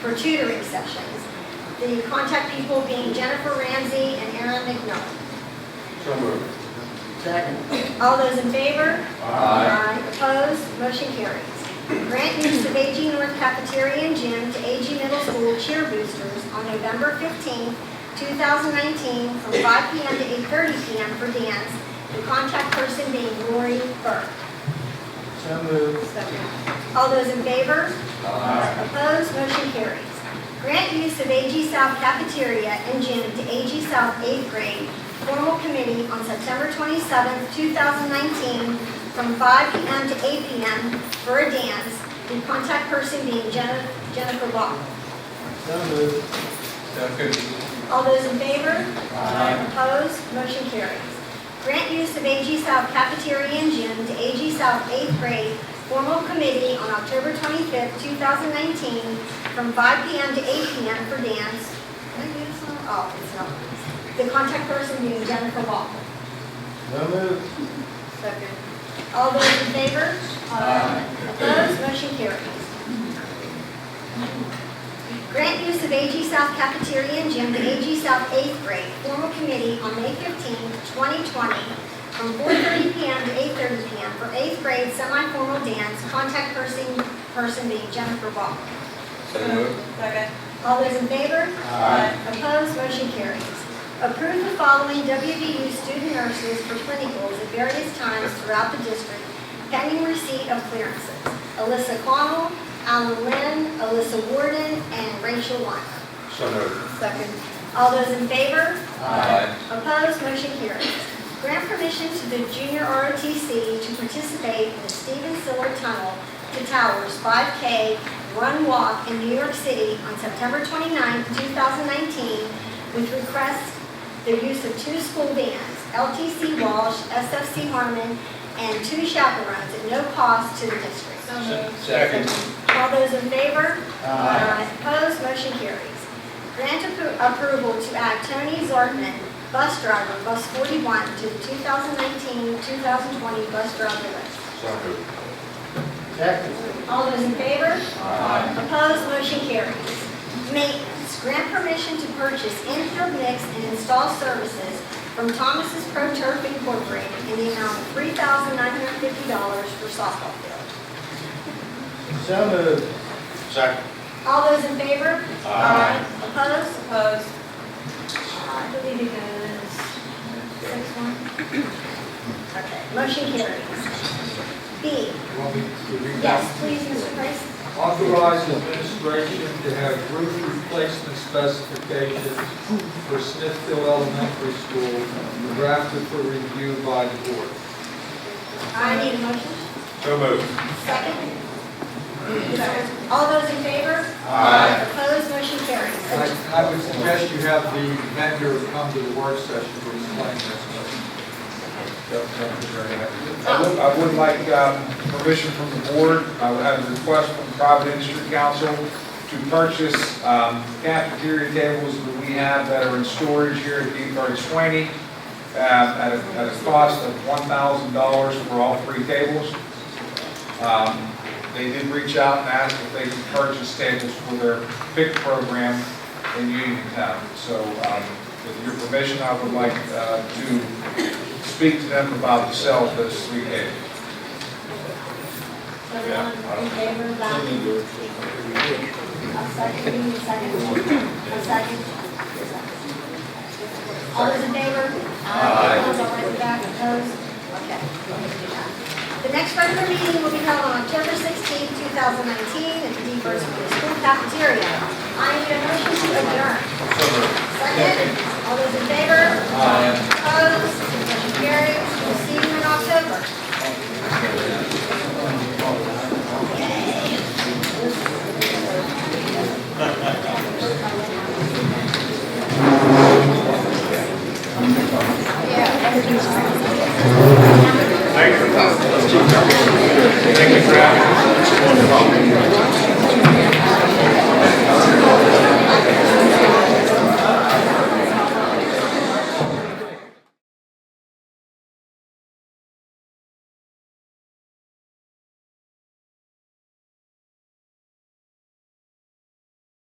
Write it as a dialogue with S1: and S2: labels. S1: for tutoring sessions. The contact people being Jennifer Ramsey and Aaron McNull.
S2: So moved.
S3: Second.
S1: All those in favor?
S2: Aye.
S1: Opposed, motion carries. Grant use of AG North Cafeteria and Gym to AG Middle School Cheer Boosters on November 15, 2019, from 5 p.m. to 8:30 p.m. for dance, the contact person being Lori Burke.
S3: So moved.
S1: All those in favor?
S2: Aye.
S1: Opposed, motion carries. Grant use of AG South cafeteria and gym to AG South eighth grade formal committee on September 27, 2019, from 5 p.m. to 8 p.m. for a dance, and contact person being Jen- Jennifer Law.
S3: So moved.
S2: Second.
S1: All those in favor?
S2: Aye.
S1: Opposed, motion carries. Grant use of AG South cafeteria and gym to AG South eighth grade formal committee on October 25th, 2019, from 5 p.m. to 8 p.m. for dance. Can I do this one? Oh, it's not. The contact person being Jennifer Walker.
S3: So moved.
S1: Second. All those in favor?
S2: Aye.
S1: Opposed, motion carries. Grant use of AG South cafeteria and gym to AG South 8th grade formal committee on May 15, 2020, from 4:30 PM to 8:30 PM for 8th grade semi-formal dance, contact person, person being Jennifer Walker.
S2: So moved.
S4: Second.
S1: All those in favor?
S2: Aye.
S1: Opposed, motion carries. Approve the following WVU student nurses for clinicals at various times throughout the district pending receipt of clearances. Alyssa Connell, Alan Lynn, Alyssa Warden, and Rachel Weiner.
S2: So moved.
S1: Second. All those in favor?
S2: Aye.
S1: Opposed, motion carries. Grant permission to the junior ROTC to participate in the Stephen Siller Tunnel to Towers 5K Run Walk in New York City on September 29, 2019, with request the use of two school bands, LTC Walsh, SFC Harmon, and two chaperones at no cost to the district.
S2: Se- Second.
S1: All those in favor?
S3: Aye.
S1: Opposed, motion carries. Grant appro- approval to add Tony Zortman, bus driver, bus 41, to the 2019-2020 bus driver list.
S2: So moved.
S3: Second.
S1: All those in favor?
S2: Aye.
S1: Opposed, motion carries. Maintenance, grant permission to purchase infield mix and install services from Thomas's Pro Turf Incorporated in the amount of $3,950 for softball field.
S3: So moved.
S2: Second.
S1: All those in favor?
S2: Aye.
S1: Opposed?
S4: Opposed?
S1: I believe it goes six one. Okay, motion carries. B, yes, please, Mr. Price.
S5: Authorize administration to have roof replacement specifications for Smithfield Elementary School drafted for review by the board.
S1: I need a motion.
S2: So moved.
S1: Second. All those in favor?
S2: Aye.
S1: Opposed, motion
S5: I
S1: carries.
S5: I would suggest you have the vendor come to the work session to explain this.
S6: I would- I would like um, permission from the board, I would have a request from Providence Street Council to purchase um, cafeteria tables that we have that are in storage here at D thirty twenty uh, at a, at a cost of one thousand dollars for all three tables. Um, They did reach out and ask if they could purchase tables for their pick program in Uniontown. So um, with your permission, I would like uh, to speak to them about the sale of those three tables.
S1: Everyone in favor of that? A second, you need a second. A second. All those in favor? Aye. Those all right with that, opposed? Okay. The next regular meeting will be held on October 16, 2019, at the Deep First School cafeteria. I need a motion to adjourn. Second, all those in favor? Aye. Opposed? Motion carries. We'll see you in October.